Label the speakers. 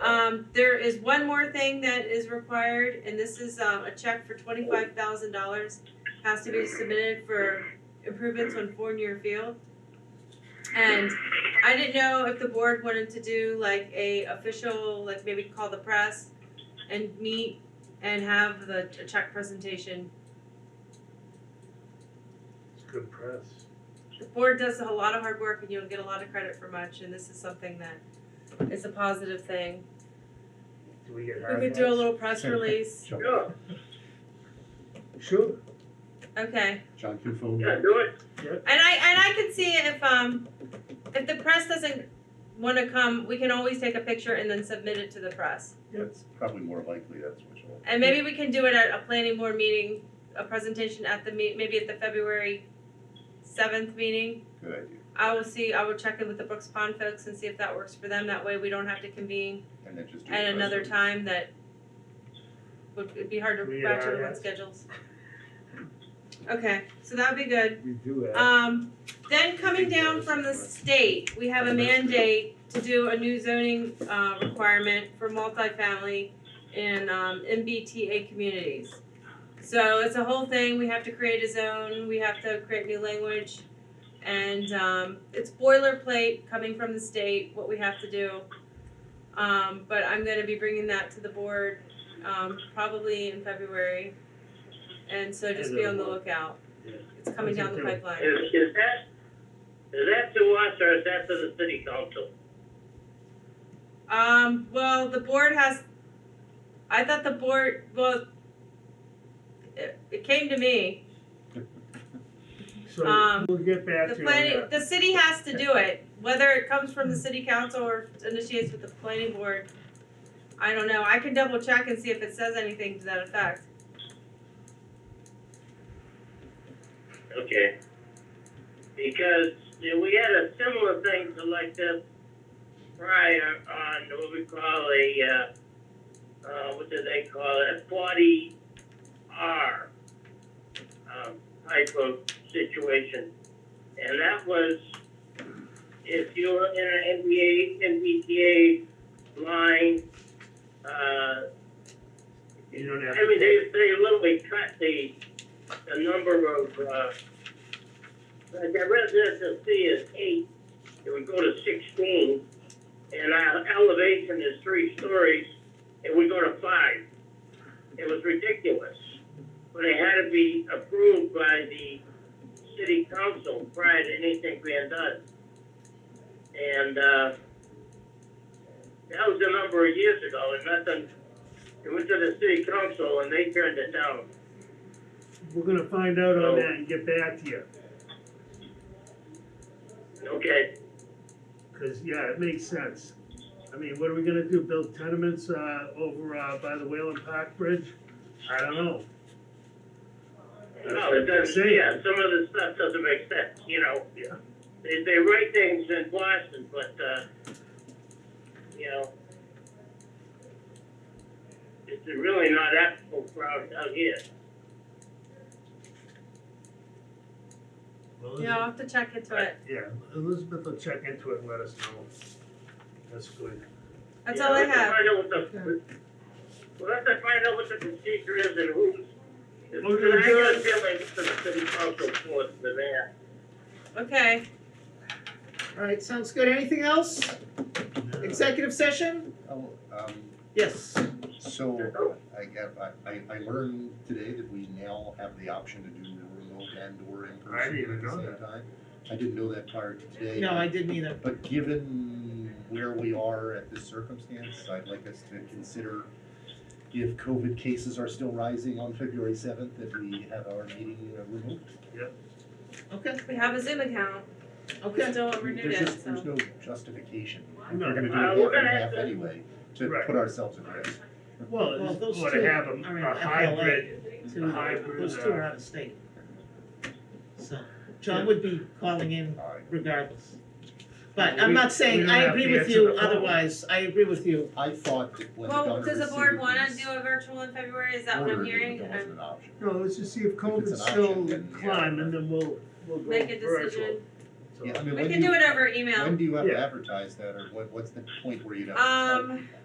Speaker 1: Um, there is one more thing that is required, and this is, um, a check for twenty-five thousand dollars. Has to be submitted for improvements on Fournier Field. And I didn't know if the board wanted to do like a official, like maybe call the press and meet and have the a check presentation.
Speaker 2: It's good press.
Speaker 1: The board does a lot of hard work and you don't get a lot of credit for much, and this is something that is a positive thing.
Speaker 2: Do we get
Speaker 1: We
Speaker 2: hard
Speaker 1: could do a
Speaker 2: ones?
Speaker 1: little press release,
Speaker 2: Yeah. Sure.
Speaker 1: okay.
Speaker 3: John can phone
Speaker 4: Yeah, do it.
Speaker 1: And I and I can see if um if the press doesn't want to come, we can always take a picture and then submit it to the press.
Speaker 3: That's probably more likely, that's what you'll.
Speaker 1: And maybe we can do it at a planning board meeting, a presentation at the meet, maybe at the February seventh meeting.
Speaker 3: Good idea.
Speaker 1: I will see. I will check in with the Brooks Pond folks and see if that works for them. That way, we don't have to convene
Speaker 3: And then just do. a
Speaker 1: at
Speaker 3: press
Speaker 1: another
Speaker 3: release.
Speaker 1: time that would it'd be hard
Speaker 2: We
Speaker 1: to
Speaker 2: get
Speaker 1: ratchet
Speaker 2: our
Speaker 1: everyone's
Speaker 2: ass.
Speaker 1: schedules. Okay, so that'd be good.
Speaker 2: We do that.
Speaker 1: Um, then coming down from the state, we have a mandate to do a new zoning, uh, requirement for multifamily in, um, MBTA communities. So it's a whole thing, we have to create a zone, we have to create new language, and, um, it's boilerplate coming from the state, what we have to do. Um, but I'm gonna be bringing that to the board, um, probably in February, and so just be on the lookout.
Speaker 2: Yeah.
Speaker 1: It's coming down the pipeline.
Speaker 4: Is, is that, is that to us or is that to the city council?
Speaker 1: Um, well, the board has, I thought the board, well, it, it came to me.
Speaker 2: So
Speaker 1: um,
Speaker 2: we'll get back
Speaker 1: The
Speaker 2: to you
Speaker 1: planning,
Speaker 2: on that.
Speaker 1: the city has to do it, whether it comes
Speaker 3: Hmm.
Speaker 1: from the city council or initiates with the planning board. I don't know, I can double check and see if it says anything to that effect.
Speaker 4: Okay. Because you know, we had a similar thing to like this prior on what we call a, uh, uh, what do they call it, a forty R um, type of situation. And that was if you were in an NBA, MBTA line, uh,
Speaker 2: You don't have
Speaker 4: I
Speaker 2: to
Speaker 4: mean, they, they literally cut the, the number of, uh, like that residential fee is eight, it would go to sixteen, and our elevation is three stories, it would go to five. It was ridiculous, but it had to be approved by the city council prior to anything being done. And, uh, that was a number of years ago, and nothing it went to the city council and they turned it down.
Speaker 2: We're gonna find out on
Speaker 4: So-
Speaker 2: that and get back to you,
Speaker 4: Okay,
Speaker 2: cause yeah, it makes sense. I mean, what are we gonna do, build tenements, uh, over, uh, by the Whalen Park Bridge? I don't know.
Speaker 4: no, it doesn't, yeah, some of the stuff doesn't make sense, you know?
Speaker 2: Yeah.
Speaker 4: They, they write things in Boston, but, uh, you know, it's really not applicable for out, out here.
Speaker 2: Well,
Speaker 1: Yeah, I'll have to check into it,
Speaker 2: Yeah, Elizabeth will check into it and let us know. That's good.
Speaker 1: that's
Speaker 4: You
Speaker 1: all I
Speaker 4: know,
Speaker 1: have.
Speaker 4: We'll have to find out what the, we'll have to find out what the procedure is and who's.
Speaker 2: Okay,
Speaker 4: I got a
Speaker 2: good.
Speaker 4: feeling it's the city council force for that.
Speaker 1: Okay,
Speaker 5: All right, sounds good. Anything else? Executive session?
Speaker 3: Oh, um,
Speaker 5: Yes.
Speaker 3: so I got, I- I, I learned today that we now have the option to do remote and or in person
Speaker 2: I didn't even
Speaker 3: at the
Speaker 2: know
Speaker 3: same
Speaker 2: that.
Speaker 3: time. I didn't know that prior to today.
Speaker 5: No, I didn't either.
Speaker 3: But given where we are at this circumstance, I'd like us to consider if COVID cases are still rising on February seventh, that we have our meeting uh, remote.
Speaker 5: Okay,
Speaker 1: we have a Zoom account, we
Speaker 5: okay.
Speaker 1: still haven't renewed
Speaker 3: There's
Speaker 1: it,
Speaker 3: just, there's
Speaker 1: so,
Speaker 3: no justification.
Speaker 2: No.
Speaker 3: We're gonna do
Speaker 4: Uh,
Speaker 3: half
Speaker 4: we're gonna
Speaker 3: and
Speaker 4: have
Speaker 3: half
Speaker 4: to-
Speaker 3: anyway, to
Speaker 2: Right.
Speaker 3: put ourselves at risk.
Speaker 2: Well,
Speaker 5: Well,
Speaker 2: it's
Speaker 5: those
Speaker 2: going to
Speaker 5: two
Speaker 2: have
Speaker 5: are in
Speaker 2: a, a
Speaker 5: FLA.
Speaker 2: hybrid,
Speaker 5: Two-
Speaker 2: a hybrid,
Speaker 5: Those two are
Speaker 2: uh,
Speaker 5: out of state. So, John would be calling in
Speaker 3: All right.
Speaker 5: regardless. But
Speaker 2: Well,
Speaker 5: I'm
Speaker 2: we-
Speaker 5: not
Speaker 2: we
Speaker 5: saying,
Speaker 2: don't
Speaker 5: I
Speaker 2: have
Speaker 5: agree
Speaker 2: to
Speaker 5: with
Speaker 2: answer
Speaker 5: you
Speaker 2: the phone.
Speaker 5: otherwise, I agree with you.
Speaker 3: I thought that when it
Speaker 1: well,
Speaker 3: under
Speaker 1: does the
Speaker 3: city
Speaker 1: board wanna
Speaker 3: police
Speaker 1: do a virtual in February, is that what
Speaker 3: order,
Speaker 1: I'm
Speaker 3: that
Speaker 1: hearing?
Speaker 3: it
Speaker 1: I'm-
Speaker 3: wasn't an option.
Speaker 2: no, let's just see if
Speaker 3: it's an
Speaker 2: COVID's
Speaker 3: option,
Speaker 2: still
Speaker 3: then, yeah.
Speaker 2: climbing, then we'll, we'll go
Speaker 1: Make a
Speaker 2: virtual.
Speaker 1: decision,
Speaker 2: So-
Speaker 3: Yeah, I mean,
Speaker 1: we
Speaker 3: when
Speaker 1: can do
Speaker 3: do,
Speaker 1: it over
Speaker 3: when
Speaker 1: email,
Speaker 3: do you have to
Speaker 2: Yeah.
Speaker 3: advertise that, or what, what's the point where you'd have to tell
Speaker 1: um.
Speaker 3: people?